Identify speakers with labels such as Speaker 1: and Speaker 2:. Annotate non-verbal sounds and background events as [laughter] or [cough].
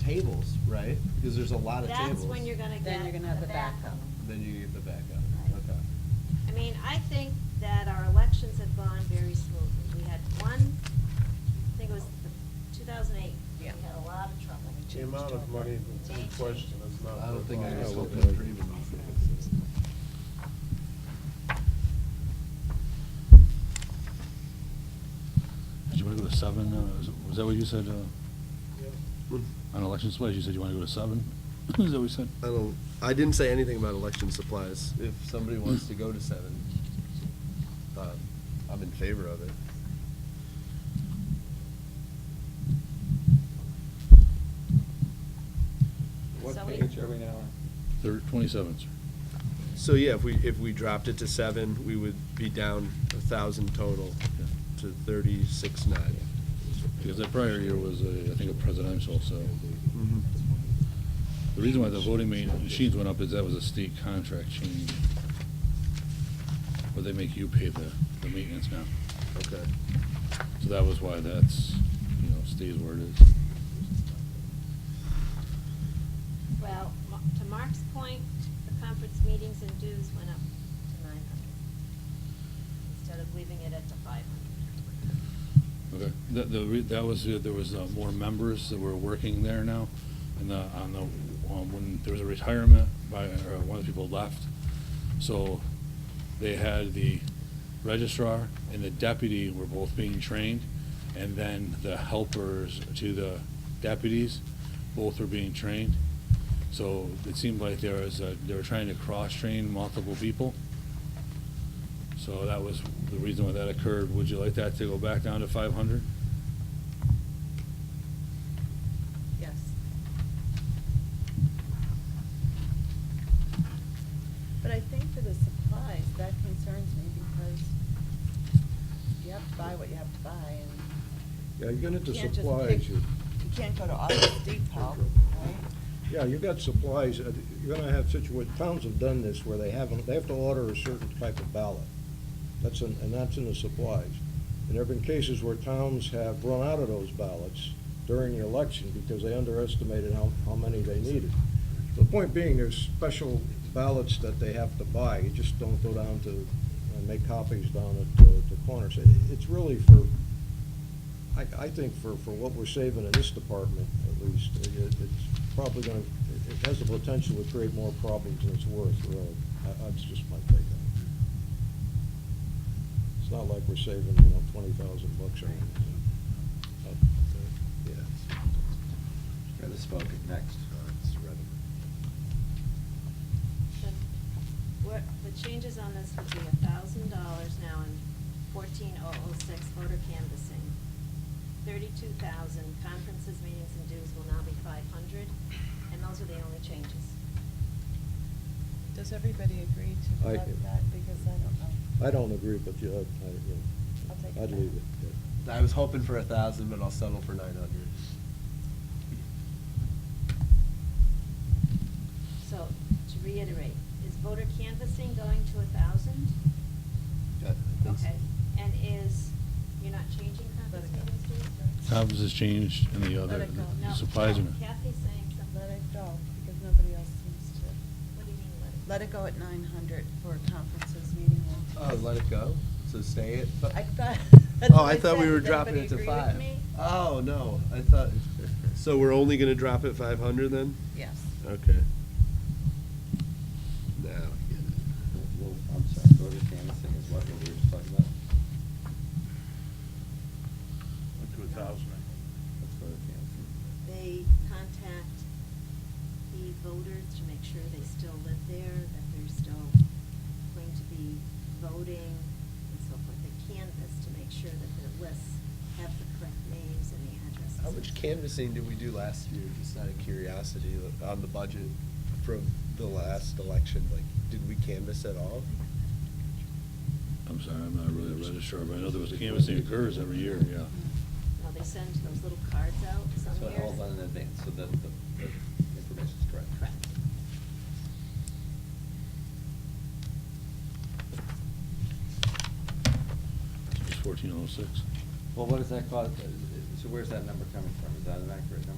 Speaker 1: tables, right? Because there's a lot of tables.
Speaker 2: That's when you're gonna
Speaker 3: Then
Speaker 2: get
Speaker 3: you're
Speaker 2: the
Speaker 3: gonna have the
Speaker 2: backup.
Speaker 1: Then you get the backup,
Speaker 2: Right.
Speaker 1: okay.
Speaker 2: I mean, I think that our elections have gone very smoothly. We had one, I think it was the 2008. We
Speaker 3: Yeah.
Speaker 2: had a lot of trouble. We
Speaker 4: The amount of
Speaker 2: changed
Speaker 4: money
Speaker 2: over.
Speaker 4: that's in
Speaker 2: Changed.
Speaker 4: question is not.
Speaker 1: I don't think I can
Speaker 4: worthwhile.
Speaker 1: still can dream about that.
Speaker 5: Did you want to go to seven? uh, is- Was that what you said, uh, on election supplies? You said you want to go to seven? [laughs] Is that what you said?
Speaker 6: I don't, I didn't say anything about election supplies.
Speaker 1: If somebody wants to go to seven, uh, I'm in favor of it.
Speaker 2: So
Speaker 7: What
Speaker 2: we-
Speaker 7: page are we now
Speaker 5: Thir twenty-seven, sir.
Speaker 6: So yeah, if we, if we dropped it to seven, we would be down a thousand total to thirty-six nine.
Speaker 5: Because that prior year was, a- I think, a presidential, so. The reason why the voting ma- machines went up is that was a state contract change. Where they make you pay the, the maintenance now.
Speaker 6: Okay.
Speaker 5: So that was why that's, you know, stays where it is.
Speaker 2: Well, Ma- to Mark's point, the conference meetings and dues went up to 900 instead of leaving it at the 500.
Speaker 5: Okay, that, the, re- that was, uh, there was uh, more members that were working there now, and the, on the, um, when there was a retirement by, or one of the people left, so they had the registrar and the deputy were both being trained, and then the helpers to the deputies, both were being trained. So it seemed like there was, a- they were trying to cross-train multiple people. So that was the reason why that occurred. Would you like that to go back down to five hundred?
Speaker 3: Yes. But I think for the supplies, that concerns me because you have to buy what you have to buy and
Speaker 7: Yeah, you're gonna have
Speaker 3: you
Speaker 7: to
Speaker 3: can't just
Speaker 7: supplies,
Speaker 3: pick,
Speaker 7: you,
Speaker 3: you can't go to Office Depot, right?
Speaker 7: yeah, you've got supplies, uh, you're gonna have situations, towns have done this where they haven't, they have to order a certain type of ballot. That's in, and that's in the supplies. And there've been cases where towns have run out of those ballots during the election because they underestimated how, how many they needed. The point being, there's special ballots that they have to buy. You just don't go down to, and make copies down at the, the corners. It, it's really for, I, I think for, for what we're saving in this department, at least, it, it's probably gonna, it- it has the potential to create more problems than it's worth, really. I, that's just my take on it. It's not like we're saving, you know, twenty thousand bucks or anything. But, uh, Yeah.
Speaker 1: Kind of spoken next.
Speaker 2: The- What, the changes on this would be a thousand dollars now in fourteen oh oh six voter canvassing. Thirty-two thousand, conferences, meetings, and dues will now be five hundred, and those are the only changes.
Speaker 8: Does everybody agree to
Speaker 7: I-
Speaker 8: let that, because I don't know.
Speaker 7: I don't agree, but you, I, I, you
Speaker 8: I'll take
Speaker 7: know,
Speaker 8: it
Speaker 7: I'd
Speaker 8: back.
Speaker 7: leave it. yeah.
Speaker 1: I was hoping for a thousand, but I'll settle for nine hundred.
Speaker 2: So, to reiterate, is voter canvassing going to a thousand? Okay, and is, you're not changing conference
Speaker 8: Let it go.
Speaker 2: meetings, dues?
Speaker 5: Conference has changed and the
Speaker 8: Let
Speaker 5: other
Speaker 8: it go.
Speaker 5: the
Speaker 2: No,
Speaker 5: supplies are.
Speaker 2: Kathy's saying something.
Speaker 8: Let it go, because nobody else seems to.
Speaker 2: What do you mean, let it go?
Speaker 8: Let it go at nine hundred for conferences, meeting rooms.
Speaker 1: Oh, let it go? So stay it?
Speaker 8: I thought. [laughs] that's
Speaker 1: Oh,
Speaker 8: what
Speaker 1: I thought we
Speaker 8: said.
Speaker 1: were
Speaker 8: Does
Speaker 1: dropping it to
Speaker 8: everybody
Speaker 1: five.
Speaker 8: agree with me?
Speaker 1: Oh, no, I thought,
Speaker 6: So we're only gonna drop it five hundred then?
Speaker 8: Yes.
Speaker 6: Okay. Now, I get it.
Speaker 7: Well, I'm sorry, voter canvassing is what we were just talking about?
Speaker 2: to a thousand.
Speaker 7: Let's go to canvassing.
Speaker 2: They contact the voters to make sure they still live there, that they're still going to be voting and so forth. They canvass to make sure that their lists have the correct names and the addresses.
Speaker 1: how much canvassing did we do last year, just out of curiosity, on the budget from the last election? Like, did we canvass at all?
Speaker 5: I'm sorry, I'm not really a registrar, but I know there was canvassing occurs every year, yeah.
Speaker 2: Now, they send those little cards out some
Speaker 7: So it all done in
Speaker 2: years.
Speaker 7: advance, so that the, the information's correct.
Speaker 2: Correct.
Speaker 5: It's fourteen oh six. oh
Speaker 7: Well, what does that cost, so where's that number coming from? Is that an accurate number?